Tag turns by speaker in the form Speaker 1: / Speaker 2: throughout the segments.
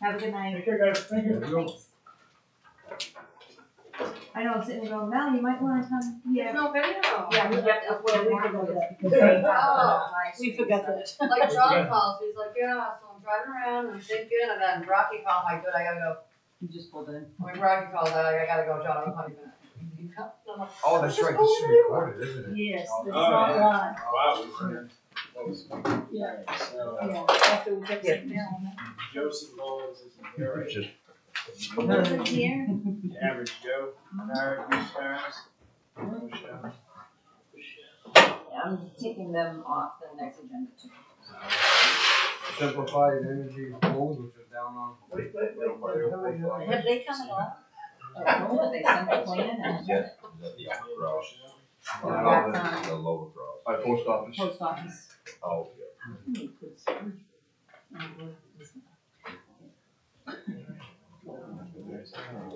Speaker 1: Have a good
Speaker 2: I
Speaker 1: night.
Speaker 2: think I got, thank you.
Speaker 1: I know I'm sitting there going, Mel, you might wanna come.
Speaker 3: There's no video.
Speaker 1: Yeah, we have to upload more of this. because they-
Speaker 3: Oh.
Speaker 4: We forgot that.
Speaker 3: Like John calls, he's like, yeah, so I'm driving around and I'm thinking, and then Rocky called, my good, I gotta go.
Speaker 4: You just pulled in.
Speaker 3: When Rocky called, I I gotta go, John, I'm coming back. He comes, I'm like,
Speaker 5: Oh, that's right, this is recorded, isn't it?
Speaker 4: Yes,
Speaker 5: Oh,
Speaker 4: it's not
Speaker 5: yeah.
Speaker 4: live.
Speaker 2: Wow, we were in- what was it?
Speaker 4: Yeah.
Speaker 2: So,
Speaker 4: Yeah, after we got sitting down.
Speaker 2: Joseph Mullins is in here, right?
Speaker 5: Just-
Speaker 1: Was it here?
Speaker 2: Average Joe, Larry, Bruce Barnes.
Speaker 1: I'm taking them off the next agenda too.
Speaker 5: Simplified energy goals, which are down on.
Speaker 2: Wait, wait, wait, wait, wait,
Speaker 1: Have they come along? Oh, they sent the plan and
Speaker 6: Yes, the upper cross.
Speaker 1: Or back
Speaker 6: The lower cross.
Speaker 5: By post office.
Speaker 4: Post office.
Speaker 6: Oh, yeah.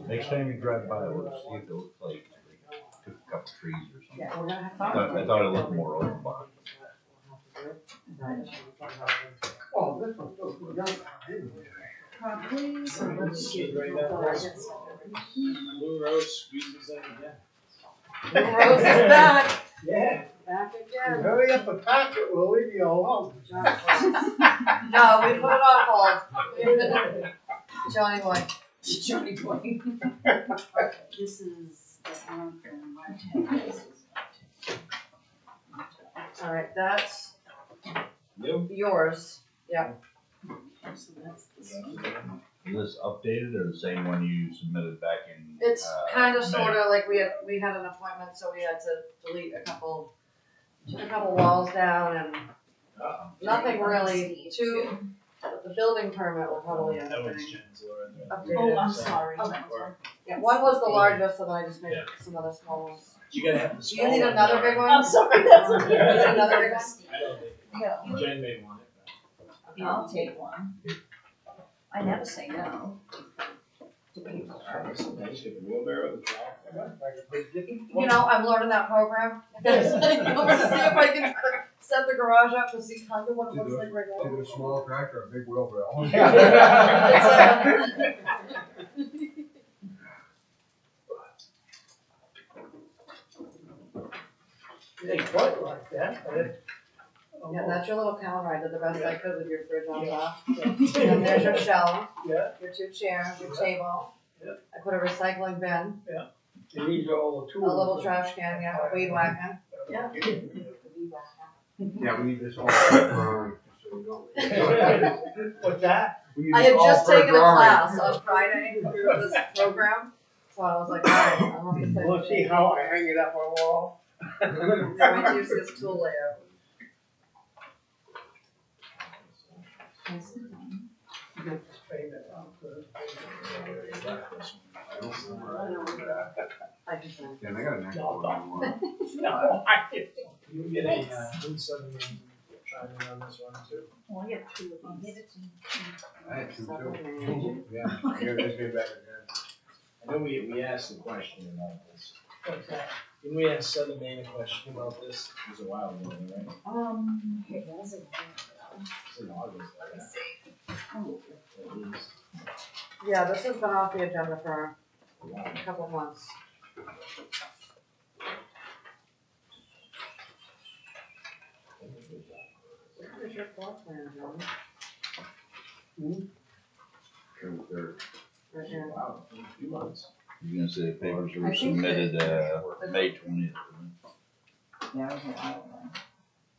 Speaker 6: Next time you drive by, we'll see if it looks like they took a couple trees or something.
Speaker 1: Yeah, we're gonna have
Speaker 6: I thought- I
Speaker 1: fun.
Speaker 6: thought it looked more open box.
Speaker 5: Oh, this one feels good.
Speaker 1: Probably, so let's
Speaker 2: Right
Speaker 1: get real
Speaker 2: now,
Speaker 1: going.
Speaker 2: there's- Blue Rose squeezes in again.
Speaker 3: Rose is back.
Speaker 2: Yeah,
Speaker 3: Back again.
Speaker 5: Hurry up and pack it, we'll leave you alone.
Speaker 3: John calls. No, we put it on hold. Johnny boy.
Speaker 1: Johnny boy. This is the one from
Speaker 3: Alright, that's
Speaker 2: Yep.
Speaker 3: yours.
Speaker 6: Is this updated or the same one you submitted back in?
Speaker 3: It's
Speaker 6: uh,
Speaker 3: kind of
Speaker 6: May?
Speaker 3: sort of like we had, we had an appointment, so we had to delete a couple, took a couple walls down and
Speaker 2: Uh-oh.
Speaker 3: nothing really too, the building permit will probably end
Speaker 2: That
Speaker 3: up
Speaker 2: was
Speaker 3: being
Speaker 2: Jen's Laura.
Speaker 4: Oh, I'm
Speaker 3: updated.
Speaker 4: sorry.
Speaker 3: Okay.
Speaker 2: Or-
Speaker 3: Yeah, one was the largest and I just made some other small ones.
Speaker 2: You gotta have the
Speaker 3: Do
Speaker 2: small
Speaker 3: you need
Speaker 2: one
Speaker 3: another
Speaker 2: now.
Speaker 3: big one?
Speaker 4: I'm sorry, that's
Speaker 3: Do you
Speaker 4: okay.
Speaker 3: need another big one?
Speaker 2: I don't think,
Speaker 4: Yeah.
Speaker 2: Jen may want it.
Speaker 1: I'll take one. I never say no. To people.
Speaker 2: Alright, so now you take a wheelbarrow, the trowel.
Speaker 3: You know, I'm learning that program. Over to see if I can set the garage up to see kind of what it looks like right now.
Speaker 5: Either a small tractor or a big wheelbarrow.
Speaker 3: It's like-
Speaker 7: They quite like that, but it.
Speaker 3: Yeah, that's your little calendar, I did the best I could with your fridge on top. And there's your shelf,
Speaker 7: Yeah,
Speaker 3: your two chairs, your table.
Speaker 7: Yeah.
Speaker 3: I put a recycling bin,
Speaker 7: and these are all the
Speaker 3: a
Speaker 7: tools.
Speaker 3: little trash can, yeah, a weed whacker. Yeah.
Speaker 5: Yeah, we need this all. for, uh, so we don't-
Speaker 7: What's that?
Speaker 5: We need
Speaker 3: I
Speaker 5: this
Speaker 3: had
Speaker 5: all
Speaker 3: just
Speaker 5: for
Speaker 3: taken a
Speaker 5: drawing.
Speaker 3: class on Friday through this program, so I was like, alright, I'm gonna
Speaker 7: We'll
Speaker 3: put
Speaker 7: see
Speaker 3: it.
Speaker 7: how I hang it up on the wall.
Speaker 3: So I use this tool layout.
Speaker 7: Straighten it out, uh,
Speaker 3: I just, I
Speaker 5: Yeah, they got an actual one.
Speaker 7: No, I didn't.
Speaker 2: You get a, uh, who's sending trying to run this one too?
Speaker 4: Well, I got two of these.
Speaker 5: I had two too. Yeah, here, let's get back again.
Speaker 2: I know we, we asked a question about this.
Speaker 7: What's that?
Speaker 2: Didn't we ask Southern Maine a question about this? It was a while ago, right?
Speaker 1: Um, it wasn't.
Speaker 2: It's in August, I guess. At least.
Speaker 3: yeah, this has been off the agenda for
Speaker 2: A while.
Speaker 3: a couple of months. Where is your floor plan, John?
Speaker 5: Two, third.
Speaker 3: Right here.
Speaker 2: Wow, it's been a few months.
Speaker 6: You're gonna say the papers
Speaker 3: I
Speaker 6: were
Speaker 3: think that-
Speaker 6: submitted, uh, May twentieth.
Speaker 1: Yeah, it was a while ago.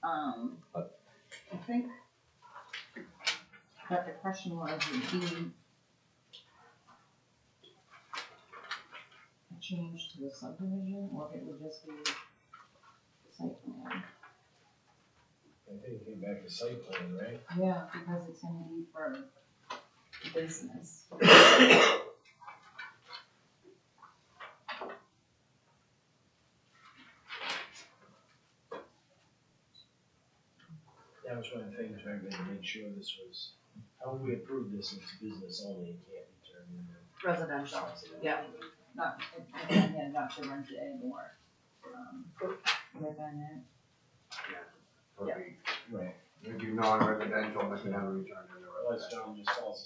Speaker 1: Um, I think that the question was would be a change to the subdivision, or if it would just be site plan.
Speaker 2: I think it came back to site plan, right?
Speaker 1: Yeah, because it's gonna be for business.
Speaker 2: That was one of the things I had to make sure this was, how would we approve this if it's business only and can't be turned into?
Speaker 3: Residential, yeah.
Speaker 1: not, yeah, not to rent it anymore. Um, Like on that.
Speaker 5: Perfect.
Speaker 2: Right.
Speaker 5: If you non-residential, they can have a return to the
Speaker 2: Unless
Speaker 5: residential.
Speaker 2: John just calls